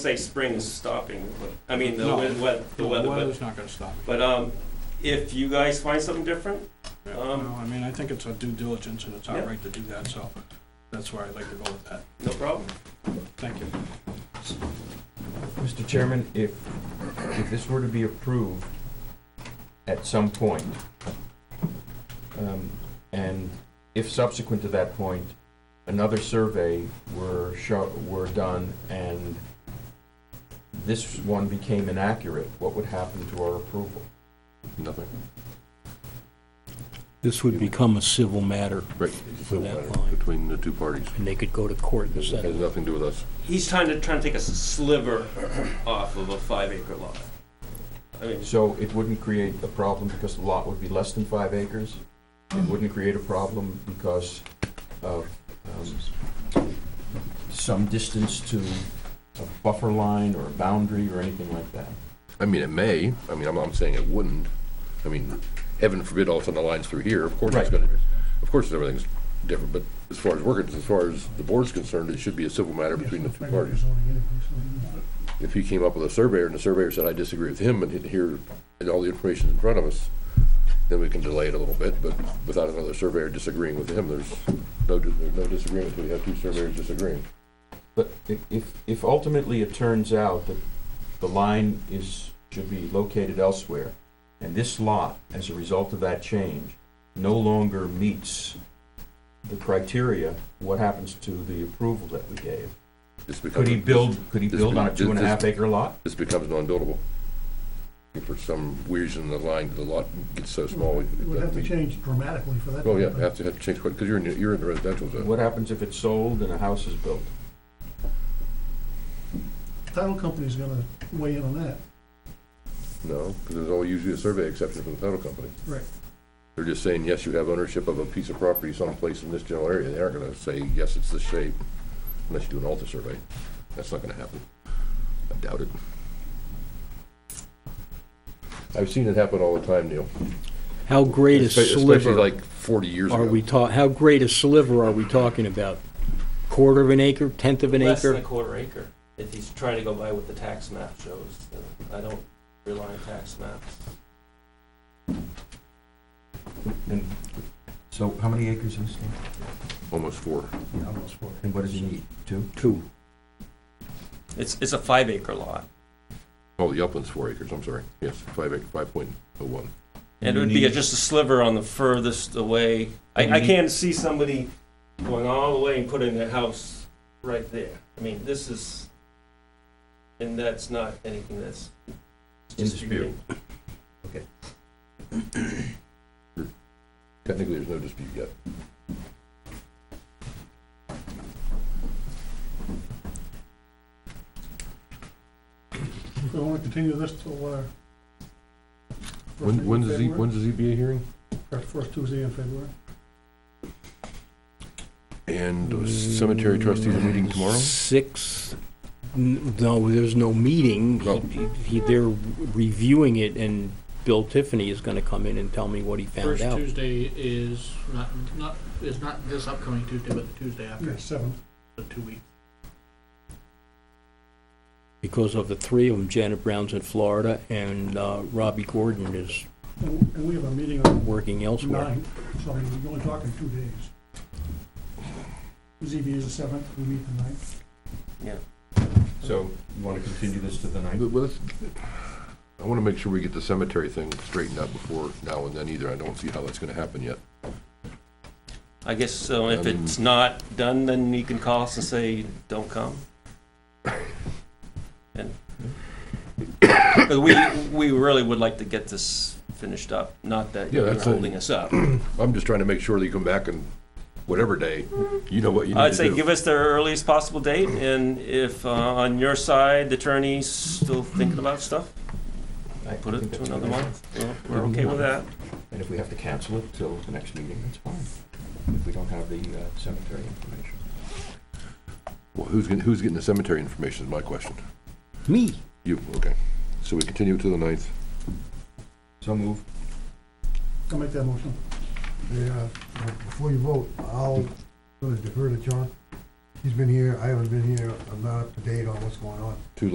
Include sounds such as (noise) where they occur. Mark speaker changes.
Speaker 1: say spring is stopping, but, I mean, the
Speaker 2: No.
Speaker 1: wea- wet, the
Speaker 2: No,
Speaker 1: weather, but,
Speaker 2: weather's not gonna stop. it.
Speaker 1: but, um, if you guys find something different,
Speaker 2: Yeah,
Speaker 1: um,
Speaker 2: No, I mean, I think it's a due diligence and it's our
Speaker 1: Yeah.
Speaker 2: right to do that, so that's where I'd like to go with that.
Speaker 1: no problem.
Speaker 2: Thank you.
Speaker 3: Mr. Chairman, if, if this were to be approved at some point, um, and if subsequent to that point, another survey were show, were done and this one became inaccurate, what would happen to our approval?
Speaker 4: Nothing.
Speaker 5: This would become a civil matter,
Speaker 4: Right.
Speaker 5: Civil that matter line.
Speaker 4: Between the two parties.
Speaker 5: and they could go to court and
Speaker 4: It has
Speaker 5: settle.
Speaker 4: nothing to do with us.
Speaker 1: He's trying to, trying to take a sliver off of a five acre lot. I mean,
Speaker 3: So it wouldn't create a problem because the lot would be less than five acres? It wouldn't create a problem because of um, some distance to a buffer line or a boundary or anything like that?
Speaker 4: I mean, it may, I mean, I'm, I'm saying it wouldn't. I mean, heaven forbid all of a sudden the line's through here, of course it's
Speaker 3: Right.
Speaker 4: gonna, of course everything's different, but as far as we're, con- as far as the board's concerned, it should be a civil matter between the two parties. If he came up with a surveyor and the surveyor said, I disagree with him, and he- here, and all the information's in front of us, then we can delay it a little bit, but without another surveyor disagreeing with him, there's no, there's no disagreement, we have two surveyors disagreeing.
Speaker 3: But i- if, if ultimately it turns out that the line is, should be located elsewhere, and this lot, as a result of that change, no longer meets the criteria, what happens to the approval that we gave?
Speaker 4: It's because
Speaker 3: Could he
Speaker 4: of-
Speaker 3: build, could he
Speaker 4: this-
Speaker 3: build on a
Speaker 4: this-
Speaker 3: two and a half
Speaker 4: this-
Speaker 3: acre lot?
Speaker 4: this becomes non-buildable. If for some reason the line, the lot gets so small. we-
Speaker 6: It would have to change dramatically for that.
Speaker 4: Oh, yeah,
Speaker 6: to happen.
Speaker 4: have to, have to change, because you're in, the- you're in the residential zone.
Speaker 3: What happens if it's sold and a house is built?
Speaker 6: Title company's gonna weigh in on that.
Speaker 4: No, because there's always usually a survey exception for the title company.
Speaker 6: Right.
Speaker 4: They're just saying, yes, you have ownership of a piece of property someplace in this general area. They aren't gonna say, yes, it's this shape, unless you do an alter survey. That's not gonna happen. I doubt it. I've seen it happen all the time, Neil.
Speaker 5: How great a
Speaker 4: Espe- Especially
Speaker 5: sliver
Speaker 4: like forty years ago.
Speaker 5: are we talk, how great a sliver are we talking about? Quarter of an acre, tenth of an
Speaker 1: less than a
Speaker 5: acre?
Speaker 1: quarter acre, if he's trying to go by what the tax map shows. Uh, I don't rely on tax maps.
Speaker 3: And so how many acres is it?
Speaker 4: Almost four.
Speaker 3: And what does he need? Two?
Speaker 5: Two.
Speaker 1: It's, it's a five acre lot.
Speaker 4: Oh, the upland's four acres, I'm sorry. Yes, five acre, five point oh one.
Speaker 1: It
Speaker 3: You
Speaker 1: would be
Speaker 3: need-
Speaker 1: just a sliver on the furthest away.
Speaker 3: You
Speaker 1: I, I
Speaker 3: need-
Speaker 1: can't see somebody going all the way and putting their house right there. I mean, this is, and that's not anything that's.
Speaker 3: In dispute.
Speaker 4: Technically, there's no dispute yet.
Speaker 6: If we wanna continue this till, uh. first week
Speaker 4: When,
Speaker 6: in
Speaker 4: when's the, Z-
Speaker 6: February,
Speaker 4: when's the ZBA hearing?
Speaker 6: or First Tuesday in February.
Speaker 4: And the cemetery trustees are meeting tomorrow?
Speaker 5: Six, n- no, there's no meeting.
Speaker 4: No.
Speaker 5: He- he- They're reviewing it, and Bill Tiffany is gonna come in and tell me what he found
Speaker 7: First
Speaker 5: out.
Speaker 7: Tuesday is not, not, is not this upcoming Tuesday, but the Tuesday after,
Speaker 6: Yeah, seventh.
Speaker 7: the two weeks.
Speaker 5: Because of the three of them, Janet Brown's in Florida, and uh, Robbie Gordon is
Speaker 6: And and we have a meeting on
Speaker 5: working elsewhere.
Speaker 6: nine, so we're only talking two days. ZB is the seventh, we meet the ninth.
Speaker 3: So you want to continue this to the ninth?
Speaker 4: Well, let's- I want to make sure we get the cemetery thing straightened out before now and then either. I don't see how that's going to happen yet.
Speaker 1: I guess, so if
Speaker 4: Um,
Speaker 1: it's not done, then you can call us and say, don't
Speaker 4: (coughs)
Speaker 1: come. And, (coughs) but we, we really would like to get this finished up, not that
Speaker 4: Yeah,
Speaker 1: you're
Speaker 4: that's a-
Speaker 1: holding us up.
Speaker 4: I'm just trying to make sure that you come back and whatever day, you know what you need
Speaker 1: I'd
Speaker 4: to
Speaker 1: say
Speaker 4: do.
Speaker 1: give us the earliest possible date, and if uh, on your side, the attorney's still thinking about stuff,
Speaker 3: I
Speaker 1: put
Speaker 3: think
Speaker 1: it to
Speaker 3: that's
Speaker 1: another
Speaker 3: good.
Speaker 1: month. We're- We're okay with that.
Speaker 3: And if we have to cancel it till the next meeting, that's fine, if we don't have the uh, cemetery information.
Speaker 4: Well, who's getting, who's getting the cemetery information is my question.
Speaker 5: Me,
Speaker 4: You, okay. So we continue to the ninth.
Speaker 3: So move.
Speaker 6: I'll make that motion.
Speaker 8: Yeah, uh, before you vote, I'll sort of defer to John. He's been here, I haven't been here, I'm not up to date on what's going on.